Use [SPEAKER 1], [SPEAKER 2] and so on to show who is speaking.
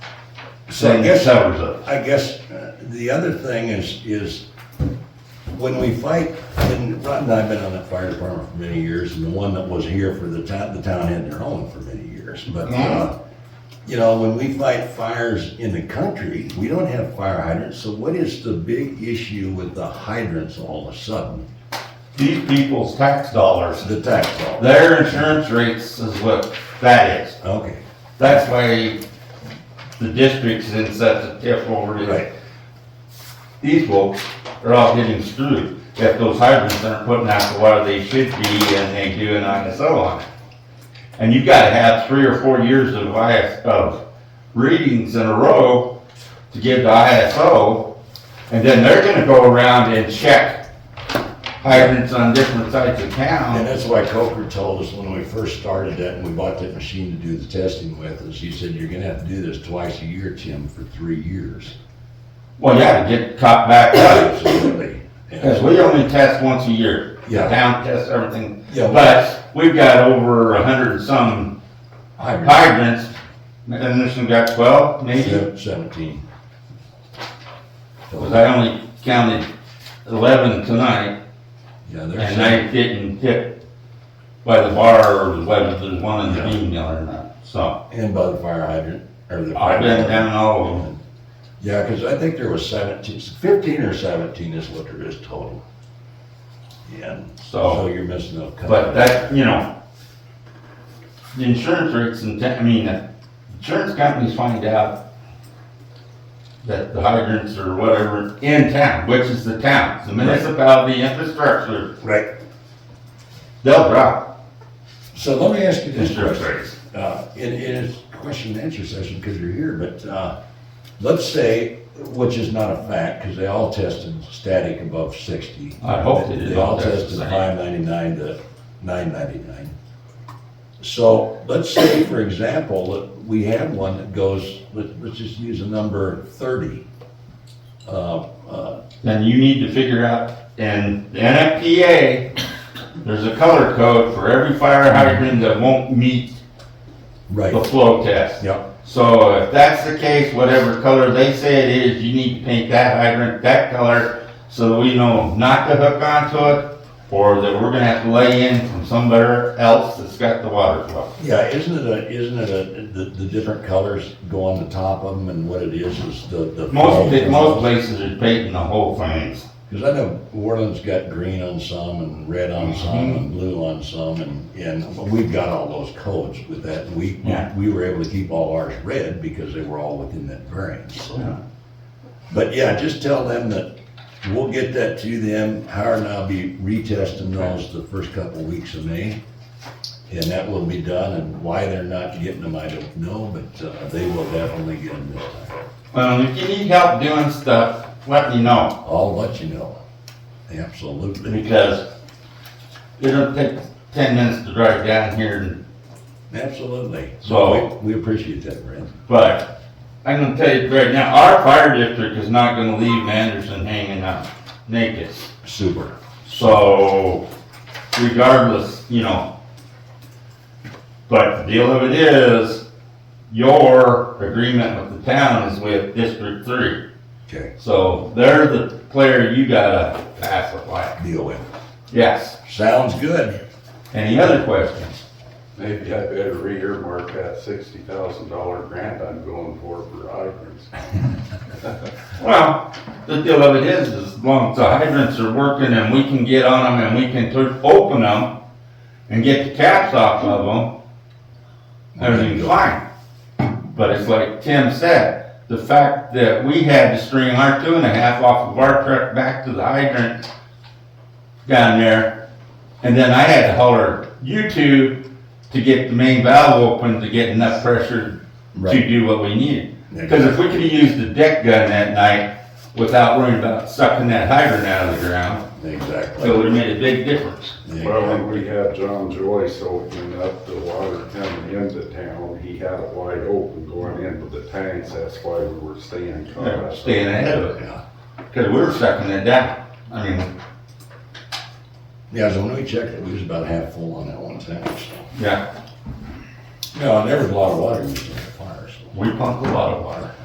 [SPEAKER 1] So
[SPEAKER 2] Mm.
[SPEAKER 1] I guess I was
[SPEAKER 2] covers us.
[SPEAKER 1] I guess uh, the other thing is, is when we fight, and Rod and I have been on that fire department for many years, and the one that was here for the town, the town had their own for many years, but, uh, you know, when we fight fires in the country, we don't have fire hydrants, so what is the big issue with the hydrants all of a sudden?
[SPEAKER 2] These people's tax dollars,
[SPEAKER 1] The tax law?
[SPEAKER 2] their insurance rates is what that is.
[SPEAKER 1] Okay,
[SPEAKER 2] That's why the district's in such a tiff over
[SPEAKER 1] right,
[SPEAKER 2] it. These folks are all getting screwed if those hydrants aren't putting out the water they should be and they do and on and so on. And you've gotta have three or four years of IS, of readings in a row to give to ISO. And then they're gonna go around and check hydrants on different sides of
[SPEAKER 1] and
[SPEAKER 2] town.
[SPEAKER 1] that's why Coker told us when we first started that, and we bought that machine to do the testing with, is he said, you're gonna have to do this twice a year, Tim, for three years.
[SPEAKER 2] Well, yeah, to get caught back up.
[SPEAKER 1] Absolutely.
[SPEAKER 2] Because we only test once a year.
[SPEAKER 1] Yeah.
[SPEAKER 2] The town tests everything.
[SPEAKER 1] Yeah.
[SPEAKER 2] But we've got over a hundred and some hydrants, and this one got twelve, maybe,
[SPEAKER 1] Seven- Seventeen.
[SPEAKER 2] because I only counted eleven tonight,
[SPEAKER 1] Yeah,
[SPEAKER 2] and
[SPEAKER 1] there's,
[SPEAKER 2] I didn't hit by the bar or whether there's one in the bean mill or not, so.
[SPEAKER 1] and by the fire hydrant, or the.
[SPEAKER 2] I've been down all of them.
[SPEAKER 1] Yeah, cause I think there was seventeen, fifteen or seventeen is what there is total. Yeah, so
[SPEAKER 2] So,
[SPEAKER 1] you're missing a couple.
[SPEAKER 2] but that, you know, the insurance rates and, ta- I mean, uh, insurance companies find out that the hydrants or whatever in town, which is the town, the municipality infrastructure,
[SPEAKER 1] Right.
[SPEAKER 2] they'll drop
[SPEAKER 1] So let me ask you this
[SPEAKER 2] insurance
[SPEAKER 1] question.
[SPEAKER 2] rates.
[SPEAKER 1] Uh, it it is question and answer session because you're here, but, uh, let's say, which is not a fact, because they all tested static above sixty.
[SPEAKER 2] I hope they did all
[SPEAKER 1] all
[SPEAKER 2] test the
[SPEAKER 1] tested
[SPEAKER 2] same.
[SPEAKER 1] five ninety-nine to nine ninety-nine. So let's say, for example, that we have one that goes, let- let's just use a number thirty. Uh, uh,
[SPEAKER 2] Then you need to figure out, and the NFPA, there's a color code for every fire hydrant that won't meet the
[SPEAKER 1] Right,
[SPEAKER 2] flow test.
[SPEAKER 1] yeah,
[SPEAKER 2] So if that's the case, whatever color they say it is, you need to paint that hydrant that color so that we know not to hook onto it or that we're gonna have to lay in from somewhere else that's got the water flow.
[SPEAKER 1] yeah, isn't it a, isn't it a, the, the different colors go on the top of them and what it is is the, the.
[SPEAKER 2] Most, most places are painting the whole things.
[SPEAKER 1] Because I know Orland's got green on some and red on
[SPEAKER 2] Mm-hmm.
[SPEAKER 1] some and blue on some and, and but we've got all those codes with that. and We,
[SPEAKER 2] Yeah.
[SPEAKER 1] we were able to keep all ours red because they were all within that variance,
[SPEAKER 2] Yeah.
[SPEAKER 1] so. But yeah, just tell them that we'll get that to them. Howard and I'll be retesting those the first couple weeks of May. And that will be done and why they're not getting them, I don't know, but uh, they will definitely get them this time.
[SPEAKER 2] Um, if you need help doing stuff, let me know
[SPEAKER 1] I'll let you know. Absolutely,
[SPEAKER 2] because it'll take ten minutes to drive down here and
[SPEAKER 1] absolutely.
[SPEAKER 2] So-
[SPEAKER 1] We we appreciate that, Brent.
[SPEAKER 2] But I'm gonna tell you right now, our fire district is not gonna leave Manderson hanging out naked.
[SPEAKER 1] Super.
[SPEAKER 2] So regardless, you know. But the deal of it is, your agreement with the town is with District Three.
[SPEAKER 1] Okay,
[SPEAKER 2] So they're the player you gotta pass it by.
[SPEAKER 1] deal with
[SPEAKER 2] Yes.
[SPEAKER 1] it. Sounds good.
[SPEAKER 2] Any other questions?
[SPEAKER 3] Maybe I better re-earmark that sixty thousand dollar grant I'm going for for hydrants.
[SPEAKER 2] Well, the deal of it is, as long as the hydrants are working and we can get on them and we can tur- open them and get the caps off of them, everything's fine. But it's like Tim said, the fact that we had to string our two and a half off of our truck back to the hydrant down there, and then I had to holler, you two, to get the main valve open to get enough pressure to
[SPEAKER 1] Right.
[SPEAKER 2] do what we needed. Because
[SPEAKER 1] Next.
[SPEAKER 2] if we could have used the deck gun that night without worrying about sucking that hydrant out of the ground, it
[SPEAKER 1] Exactly.
[SPEAKER 2] would have made a big difference.
[SPEAKER 1] Yeah.
[SPEAKER 3] Well, when we had John Joyce opening up the water coming into town, he had it wide open going into the tanks, that's why we were staying
[SPEAKER 2] Yeah,
[SPEAKER 3] caught.
[SPEAKER 2] Staying ahead of it,
[SPEAKER 1] Yeah.
[SPEAKER 2] because we were sucking it down. I mean,
[SPEAKER 1] Yeah, so when we checked it, we was about half full on that one tank, so.
[SPEAKER 2] yeah,
[SPEAKER 1] No, and there was a lot of water used in the fire, so.
[SPEAKER 2] we pumped a lot of water.